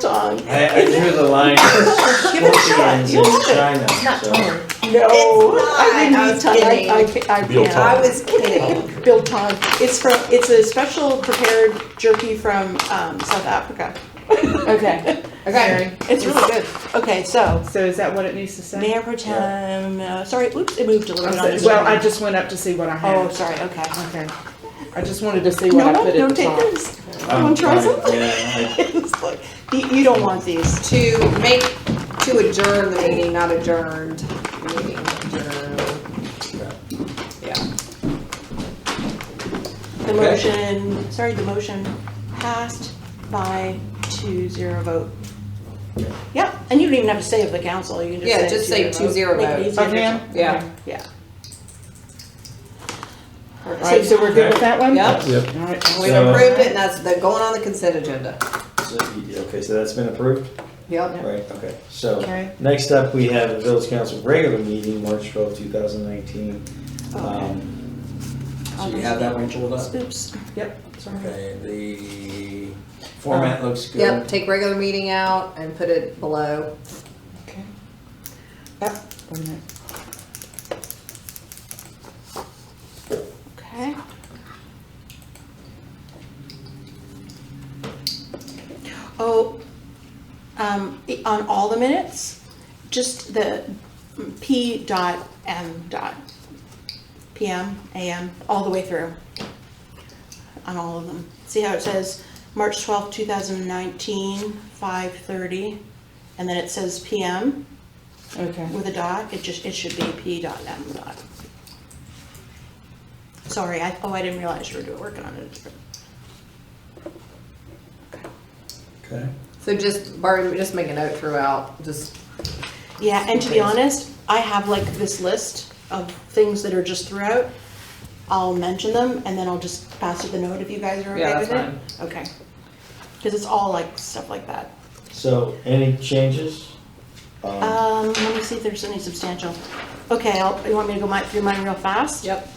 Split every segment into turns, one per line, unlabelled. song.
I, I drew the line
Give it a shot.
scorpions in
You'll love it.
China, so.
No,
Oh,
I didn't
It's
eat tongue.
not. I was
I, I,
kidding.
ca- I
Biltong.
can't.
I was kidding.
Built tongue. It's from. It's a special prepared jerky from um, South Africa.
Okay, okay.
It's really good. Okay, so
So is that what it needs to say?
Mayor Pro Tem. Uh, sorry, oops, it moved a little bit on this.
Well,
one.
I just went up to see what I
Oh,
had.
sorry. Okay.
Okay. I just wanted to see what
No,
I
no,
put at
don't
the
take
top.
this.
I'm
Wanna try
fine.
something?
um, Yeah,
It's like- you, you don't want these.
To make, to adjourn the meeting, not adjourned. Meeting adjourned. Yeah.
The
Okay.
motion. Sorry, the motion passed by two zero vote. Yep, and you don't even have to say of the council. You can just
Yeah,
say
just say
two zero
2-0
vote. Make it
vote.
easier.
Yeah.
Yeah.
All right, so we're good with that one?
Yep.
Yep.
All right.
We've
So-
approved it and that's, they're going on the consent agenda.
I- so you- Okay, so that's been approved?
Yep.
Right, okay. So,
Okay.
next up, we have the village council regular meeting, March twelfth, two thousand nineteen. Um,
Okay.
So you have that one pulled up?
Oops.
Yep.
Okay, the format looks good.
Yep, take regular meeting out and put it below.
Okay. Yep. Wait a minute.
Okay. Oh, um, i- on all the minutes, just the P dot M dot, PM, AM, all the way through. On all of them. See how it says March twelfth, two thousand nineteen, five thirty, and then it says PM
Okay.
with a dot, it just, it should be P dot M dot. Sorry, I, oh, I didn't realize you were doing, working on it.
Okay.
So just, Barb, just make a note throughout, just,
Yeah, and to be
Okay.
honest, I have like this list of things that are just throughout. I'll mention them and then I'll just pass it the note if you guys are okay
Yeah,
with it.
that's
Okay. Cause it's all like stuff like that.
So, any changes? Um,
Um, let me see if there's any substantial. Okay, I'll, you want me to go my, through mine real fast?
yep.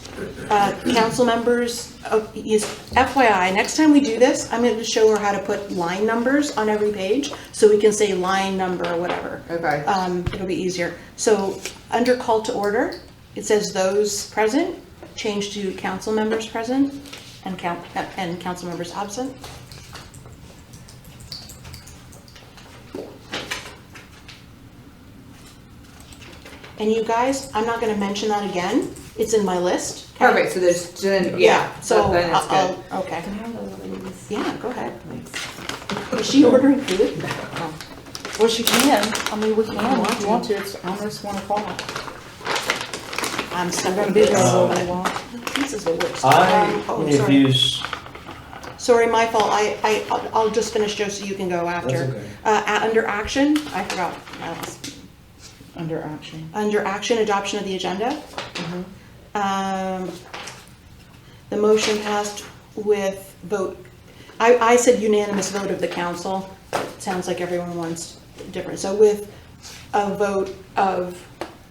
uh, council members, oh, yes, FYI, next time we do this, I'm going to show her how to put line numbers on every page, so we can say line number or whatever.
Okay.
Um, It'll be easier. So, under call to order, it says those present, change to council members present and coun and council members absent. And you guys, I'm not gonna mention that again. It's in my list. okay?
Perfect, so there's, then- yeah, so
So,
then it's
Oh, I'll-
good.
I'll- okay.
Can I have those other ones?
Yeah, go ahead. Is she ordering food?
Well, she can.
I mean, we can.
I want you want to. It's almost one o'clock.
I'm so
I'm gonna be there all
Um,
day long.
This is the worst. Um,
I
oh, sorry.
introduced,
Sorry, my fault. I, I, I'll- I'll just finish Joe so you can go after.
okay.
Uh, a- under action, I forgot. my last-
Under action.
Under action, adoption of the agenda. Um, the motion passed with vote, I, I said unanimous vote of the council. It Sounds like everyone wants different, so with a vote of,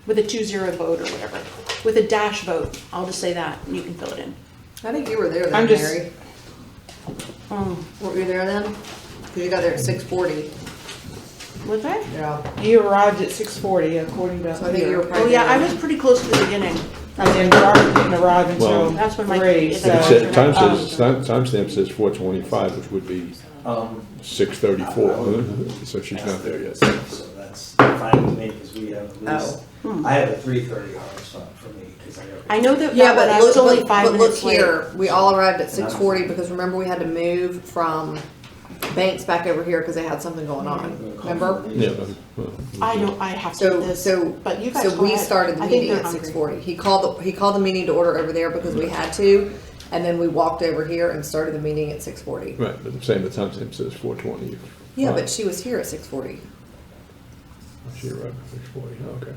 with a two-zero vote or whatever, with a dash vote, I'll just say that, and you can fill it in.
I think you were there then,
I'm just-
Mary.
Um,
Weren't you there then? Cause you got there at six forty.
Was I?
Yeah.
You arrived at six forty according to
So I think you were
here.
Oh,
probably.
yeah, I was pretty close to the beginning.
And then Barb didn't arrive
Well-
until
That's when my-
three,
it's
so. um,
like-
It said, time
Oh.
says, time- timestamp says four twenty-five, which would be
um,
six
Oh.
thirty-four, so she's not there yet.
So that's fine with me, because we have at
Oh,
least, I have a three thirty hard stop for me, because I gotta.
hmm. I know that
Yeah,
that one,
but
I
look,
was only
but,
five
but look
minutes late.
here, we all arrived at
And I'm-
six forty because remember we had to move from Banks back over here because they had something going on, remember?
Yeah, but, well,
I don't, I have to do
So,
this,
so,
but you guys
so
go
we
ahead.
started the
I think
meeting
they're
at six
hungry.
forty. He called, the he called the meeting to order over there because we had to, and then we walked over here and started the meeting at six forty.
Right, but I'm saying the timestamp says four twenty.
Yeah, but she was here at six forty,
Oh, She arrived at six forty, oh, okay.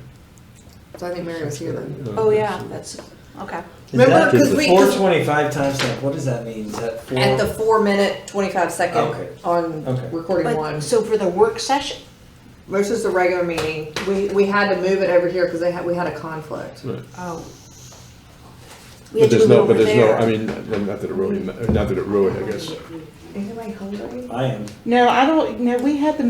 so I think Mary was here then.
Oh, yeah, that's, okay.
Remember, 'cause we-
Four twenty-five timestamp, what does that mean? Is that four?
At the four minute, twenty-five
Okay.
second on
Okay.
recording one.
But, so for the work session,
Versus the regular meeting, we, we had to move it over here because they had, we had a conflict.
Right.
Oh. We
But
had to move
there's no,
over
but there's no,
there.
I mean, not that it really, ma- not that it really, I guess,
Anyway, hold on.
I am.
No, I don't, no, we had the